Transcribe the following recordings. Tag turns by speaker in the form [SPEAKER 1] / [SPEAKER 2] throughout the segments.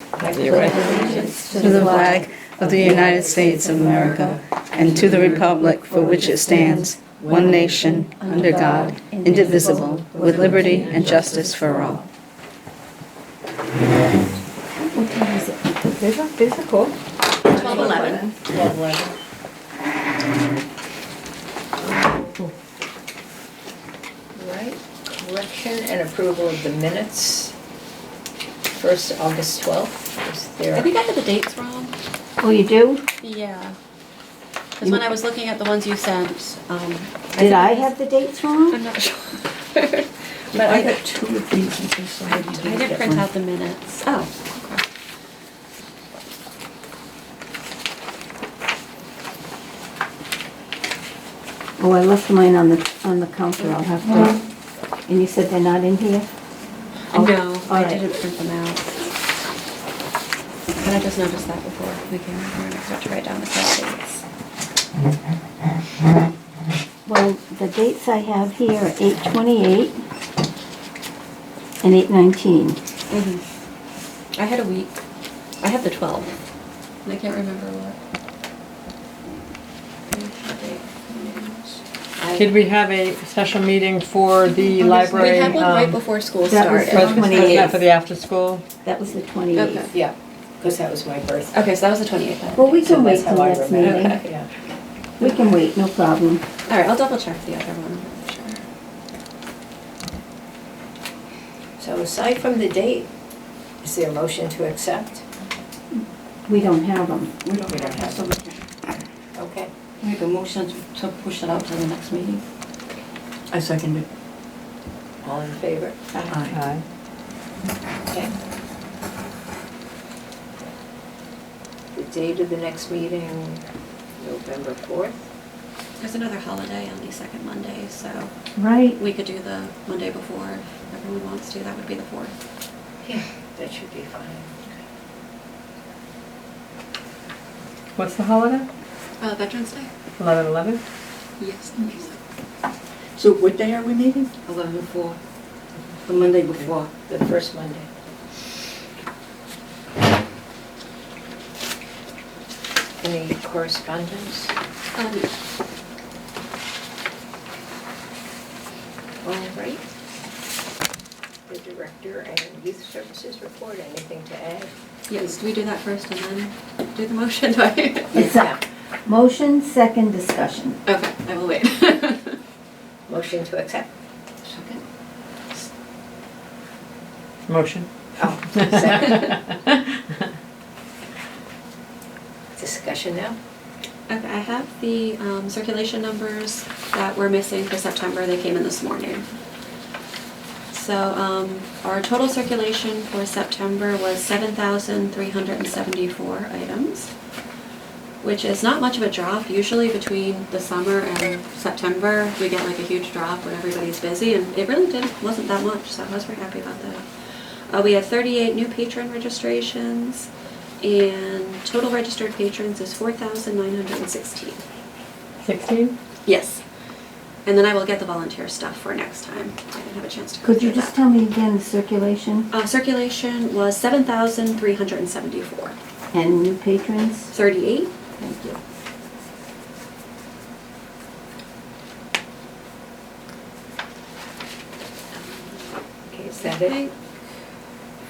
[SPEAKER 1] I pledge allegiance to the flag of the United States of America and to the republic for which it stands, one nation, under God, indivisible, with liberty and justice for all.
[SPEAKER 2] These are, these are cool.
[SPEAKER 3] 1211. Right, correction and approval of the minutes, first August 12th, is
[SPEAKER 4] I think
[SPEAKER 3] there?
[SPEAKER 4] I had the dates wrong.
[SPEAKER 2] Oh, you do?
[SPEAKER 4] Yeah. Because when I was looking at the ones you sent, um.
[SPEAKER 2] Did I
[SPEAKER 4] think-
[SPEAKER 2] have the dates wrong?
[SPEAKER 4] I'm not sure.
[SPEAKER 3] But I got
[SPEAKER 1] two of these, I guess
[SPEAKER 4] I didn't print out the minutes. Oh, okay.
[SPEAKER 2] Oh, I left mine on the, on the counter, I'll have
[SPEAKER 5] Mm-hmm.
[SPEAKER 2] to. And you said they're not in here? Oh,
[SPEAKER 4] No,
[SPEAKER 2] all
[SPEAKER 4] I
[SPEAKER 2] right.
[SPEAKER 4] didn't print them out. But I just noticed that before we came over and I forgot to write down the correct dates.
[SPEAKER 2] Well, the dates I have here are eight twenty-eight and eight nineteen.
[SPEAKER 4] Mhm. I had a week. I had the 12th. And I can't remember what. I-
[SPEAKER 6] Did we have a special meeting for the
[SPEAKER 4] We
[SPEAKER 6] library?
[SPEAKER 4] had one right
[SPEAKER 6] um,
[SPEAKER 4] before school
[SPEAKER 2] That was
[SPEAKER 4] started.
[SPEAKER 6] for-
[SPEAKER 2] the
[SPEAKER 6] For
[SPEAKER 2] 28th.
[SPEAKER 6] the after-school?
[SPEAKER 2] That was the
[SPEAKER 4] Okay.
[SPEAKER 2] twenty-eighth.
[SPEAKER 3] Yeah, because that was my birthday.
[SPEAKER 4] Okay, so that was the 28th. then.
[SPEAKER 2] Well, we
[SPEAKER 3] So
[SPEAKER 2] can wait
[SPEAKER 3] that's
[SPEAKER 2] till
[SPEAKER 3] how I
[SPEAKER 2] next
[SPEAKER 3] remember.
[SPEAKER 2] meeting.
[SPEAKER 4] Okay.
[SPEAKER 3] Yeah.
[SPEAKER 2] We can wait, no problem.
[SPEAKER 4] All right, I'll double check the other one. I'm sure.
[SPEAKER 3] So aside from the date, is there a motion to accept?
[SPEAKER 2] We don't have them.
[SPEAKER 5] We don't
[SPEAKER 3] We don't have
[SPEAKER 5] have so we can
[SPEAKER 3] Okay.
[SPEAKER 5] make a motion to- to push it out to the next meeting. I second it.
[SPEAKER 3] All in favor?
[SPEAKER 5] Aye.
[SPEAKER 6] Aye.
[SPEAKER 3] Okay. The date of the next meeting, November 4th.
[SPEAKER 4] There's another holiday on the second Monday, so
[SPEAKER 2] Right.
[SPEAKER 4] we could do the Monday before if everyone wants to. That would be the 4th.
[SPEAKER 3] Yeah. That should be fine.
[SPEAKER 6] What's the holiday?
[SPEAKER 4] Uh, Veterans Day? Um,
[SPEAKER 6] 11/11?
[SPEAKER 4] Yes.
[SPEAKER 5] So what day are we meeting?
[SPEAKER 4] Eleven four.
[SPEAKER 5] The Monday before.
[SPEAKER 3] The first Monday. Any correspondence?
[SPEAKER 4] Um,
[SPEAKER 3] All right. The director and youth services report, anything to add?
[SPEAKER 4] yes, do we do that first and then do the motion? Do I-
[SPEAKER 2] It's up. Motion, second discussion.
[SPEAKER 4] Okay, I will wait.
[SPEAKER 3] Motion to accept?
[SPEAKER 5] Second.
[SPEAKER 6] Motion.
[SPEAKER 3] Oh, second. Discussion now?
[SPEAKER 4] Okay, I have the um, circulation numbers that were missing for September. They came in this morning. So um, our total circulation for September was 7,374 items, which is not much of a drop. Usually between the summer and September, we get like a huge drop when everybody's busy, and it really didn't, wasn't that much, so I was very happy about that. Uh, We had 38 new patron registrations, and total registered patrons is 4,916.
[SPEAKER 6] 16?
[SPEAKER 4] Yes. And then I will get the volunteer stuff for next time. I didn't have a chance to. go
[SPEAKER 2] Could you
[SPEAKER 4] through
[SPEAKER 2] just
[SPEAKER 4] that.
[SPEAKER 2] tell me again the circulation
[SPEAKER 4] Uh, circulation was 7,374.
[SPEAKER 2] and new patrons?
[SPEAKER 4] 38.
[SPEAKER 2] Thank you.
[SPEAKER 3] Okay, is that it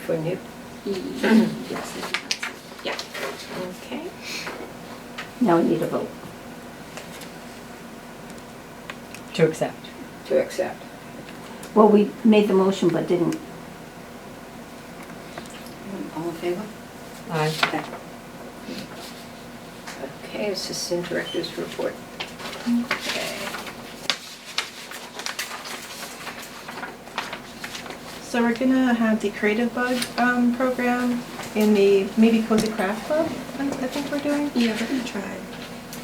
[SPEAKER 3] for new?
[SPEAKER 4] Yes, I think that's it. Yeah.
[SPEAKER 3] Okay.
[SPEAKER 2] Now we need a vote.
[SPEAKER 6] To accept.
[SPEAKER 3] To accept.
[SPEAKER 2] Well, we made the motion but didn't.
[SPEAKER 5] All in favor?
[SPEAKER 6] Aye.
[SPEAKER 3] Okay, Assistant Director's report. Okay.
[SPEAKER 7] So we're gonna have the Creative Bug um, program in the maybe Cozy Craft Club, I I think we're doing.
[SPEAKER 4] Yeah, we're gonna try.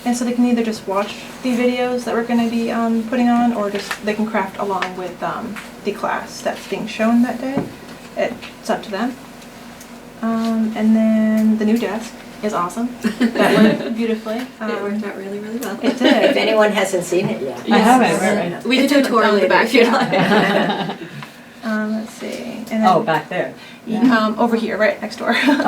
[SPEAKER 7] And so they can either just watch the videos that we're gonna be um, putting on, or just, they can craft along with um, the class that's being shown that day. It's up to them. Um, And then the new desk is awesome. That went beautifully.
[SPEAKER 4] It
[SPEAKER 7] Um,
[SPEAKER 4] worked out really, really well.
[SPEAKER 7] It did.
[SPEAKER 3] If anyone hasn't seen it yet.
[SPEAKER 6] I haven't,
[SPEAKER 7] Yes.
[SPEAKER 6] right, right.
[SPEAKER 4] We did
[SPEAKER 7] It's
[SPEAKER 4] do a
[SPEAKER 7] in the-
[SPEAKER 4] tour
[SPEAKER 7] on the
[SPEAKER 4] later
[SPEAKER 7] back,
[SPEAKER 4] if you'd
[SPEAKER 7] yeah.
[SPEAKER 4] like.
[SPEAKER 7] Um, Let's see. and then-
[SPEAKER 6] Oh, back there.
[SPEAKER 7] Um, Over here, right next door.